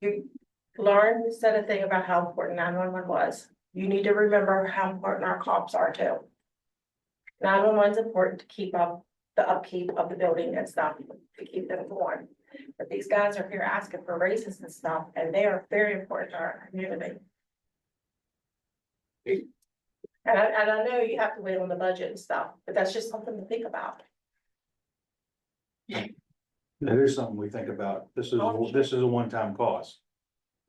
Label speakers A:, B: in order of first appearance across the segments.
A: You, Lauren said a thing about how important nine one one was. You need to remember how important our cops are too. Nine one one's important to keep up the upkeep of the building and stuff, to keep them warm. But these guys are here asking for raises and stuff, and they are very important to our community. And I, and I know you have to wait on the budget and stuff, but that's just something to think about.
B: That is something we think about. This is,
A: Oh, sure.
B: this is a one-time cost.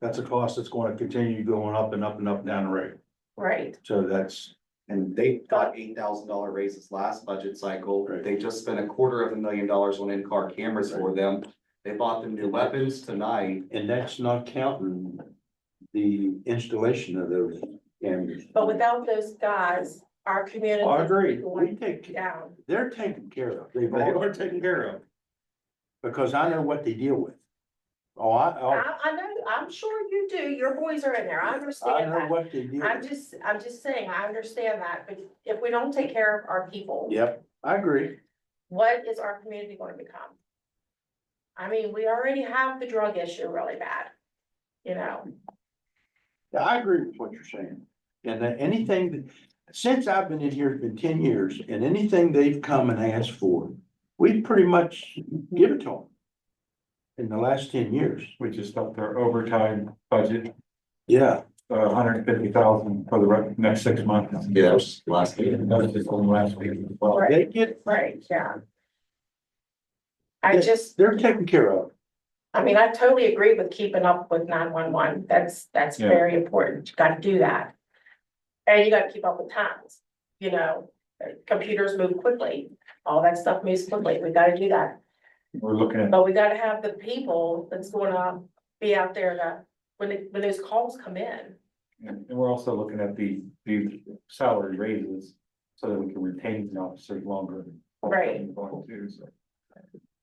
B: That's a cost that's going to continue going up and up and up down the road.
A: Right.
B: So that's,
C: And they got eight thousand dollar raises last budget cycle.
B: Right.
C: They just spent a quarter of a million dollars on in-car cameras for them. They bought them new weapons tonight.
B: and that's not counting the installation of those cameras. Oh,
A: But without those guys, our community.
B: I agree.
A: is
B: We
A: going
B: take,
A: Down.
B: they're taken care of. They are taken care of. Because I know what they deal with. Oh, I, oh,
A: I, I know, I'm sure you do, your boys are in there, I
B: I
A: understand
B: know
A: that.
B: what they deal
A: I'm
B: with.
A: just, I'm just saying, I understand that, but if we don't take care of our people,
B: Yep, I agree.
A: what is our community going to become? I mean, we already have the drug issue really bad, you know,
B: Yeah, I agree with what you're saying. And that anything, that- since I've been in here, it's been ten years, and anything they've come and asked for, we pretty much give it to them. In the last ten years.
D: We just up their overtime budget,
B: Yeah.
D: uh hundred and fifty thousand for the re- next six months.
C: Yes, last
D: And That was just on last week as well.
A: Right.
B: They get,
A: right, yeah. I
B: Yeah.
A: just,
B: they're taken care of.
A: I mean, I totally agree with keeping up with nine one one, that's, that's
D: Yeah.
A: very important, you gotta do that. And you gotta keep up with times, you know, computers move quickly, all that stuff moves quickly, we gotta do that.
D: We're looking at,
A: But we gotta have the people that's gonna be out there to, when, it- when those calls come in.
D: and we're also looking at the, the salary raises so that we can retain the officers longer. than
A: Right.
D: Going to, so.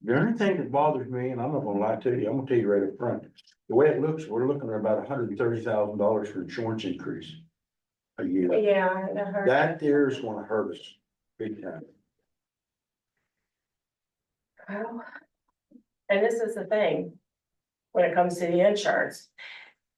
B: The only thing that bothers me, and I'm not gonna lie to you, I'm gonna tell you right up front, the way it looks, we're looking at about hundred and thirty thousand dollars for insurance increase. A year.
A: Yeah, I heard.
B: That there is gonna hurt us big time.
A: Well, And this is the thing, when it comes to the insurance.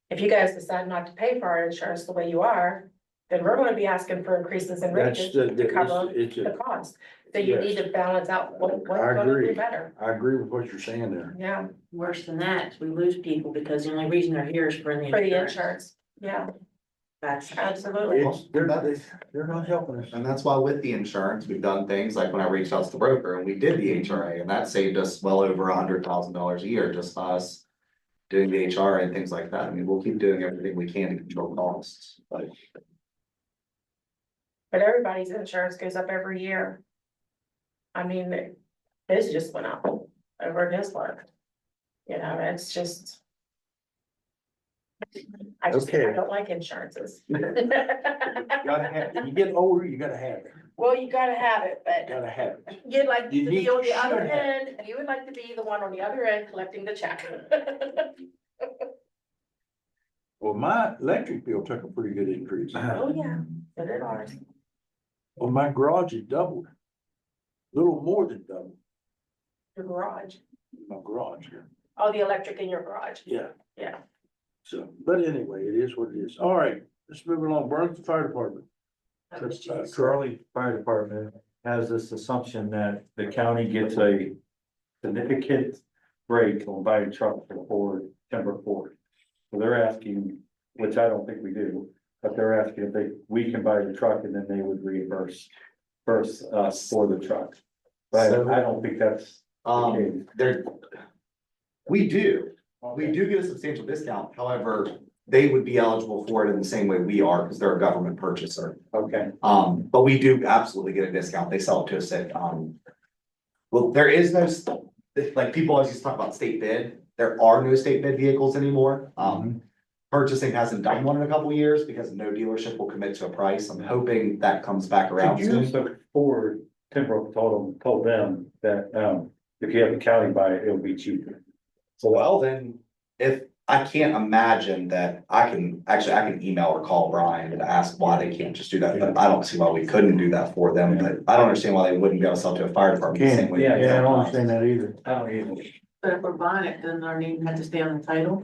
A: If you guys decide not to pay for our insurance the way you are, then we're gonna be asking for increases in
B: That's
A: wages
B: the,
A: to cover
B: it's, it's,
A: the
B: a-
A: cost. So you need to balance out what, what's
B: I
A: gonna
B: agree.
A: be better,
B: I agree with what you're saying there.
A: yeah,
E: Worse than that, we lose people because the only reason they're here is for the
A: for the
E: insurance.
A: insurance, yeah,
E: That's,
A: absolutely.
B: It's, they're not, they're not helping us.
C: And that's why with the insurance, we've done things like when I reached out to the broker and we did the HRA and that saved us well over hundred thousand dollars a year just by us. Doing the HRA and things like that. I mean, we'll keep doing everything we can to control costs, but
A: But everybody's insurance goes up every year. I mean, his just went up over his work. You know, it's just. I just, I
B: Okay.
A: don't like insurances.
B: Gotta have, it. you get older, you gotta have it,
A: Well, you gotta have it, but
B: gotta have it.
A: you'd like to
B: You need
A: be on
B: to
A: the other
B: share that.
A: end, you would like to be the one on the other end collecting the check.
B: Well, my electric bill took a pretty good increase.
A: Oh, yeah, but it ours.
B: Well, my garage had doubled. Little more than doubled
A: Your garage,
B: my garage here.
A: oh, the electric in your garage,
B: Yeah.
A: Yeah.
B: So, but anyway, it is what it is. All right, let's move along. Burns Fire Department.
E: that was
D: Uh,
E: just-
D: Charlie Fire Department has this assumption that the county gets a significant break on buying trucks for Ford, Timber Ford. So they're asking, which I don't think we do, but they're asking if they, we can buy the truck and then they would reimburse first us for the truck. But I don't think that's the
C: um.
D: case.
C: There. We do, we do get a substantial discount, however, they would be eligible for it in the same way we are, because they're a government purchaser.
D: Okay,
C: Um, but we do absolutely get a discount, they sell it to us at, um. Well, there is no, s- like, people always used to talk about state bid, there are no state bid vehicles anymore, um. Purchasing hasn't done one in a couple of years because no dealership will commit to a price, I'm hoping that comes back around soon.
D: so Ford, Timbrook told them, told them that, um, if you have the county buy it, it'll be cheaper.
C: So well, then, if, I can't imagine that I can, actually, I can email or call Brian and ask why they can't just do that, but I don't see why we couldn't do that for them, but I don't understand why they wouldn't be able to sell to a fire department the same way.
D: Yeah,
B: I don't understand that either.
D: I don't either.
E: But if we're buying it, then our name had to stay on the title.